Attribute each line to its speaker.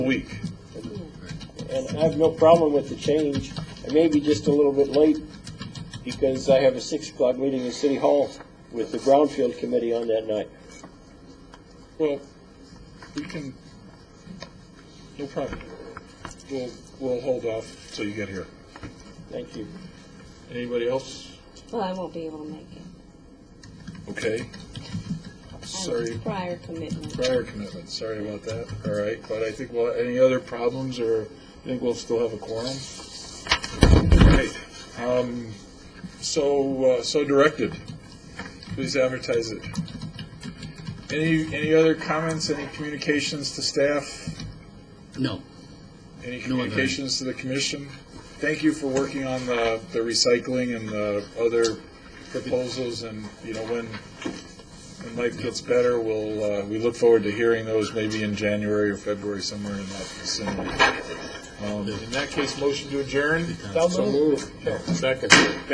Speaker 1: week.
Speaker 2: And I have no problem with the change. I may be just a little bit late because I have a six o'clock meeting in City Hall with the Brownfield Committee on that night.
Speaker 3: Well, we can, no problem. We'll, we'll hold off.
Speaker 1: So you get here.
Speaker 2: Thank you.
Speaker 3: Anybody else?
Speaker 4: Well, I won't be able to make it.
Speaker 3: Okay.
Speaker 4: I have
Speaker 3: Sorry,
Speaker 4: Prior commitment.
Speaker 3: prior commitment, sorry about that. All right, but I think, we'll any other problems or I think we'll still have a quorum? Great. Um, so, uh, so directed. Please advertise it. Any, any other comments, any communications to staff?
Speaker 5: No.
Speaker 3: Any
Speaker 5: No other.
Speaker 3: communications to the commission? Thank you for working on the, the recycling and the other proposals, and, you know, when, when life gets better, we'll, uh, we look forward to hearing those maybe in January or February, somewhere in that vicinity. Um, In that case, motion to adjourn?
Speaker 2: So moved.
Speaker 3: Second.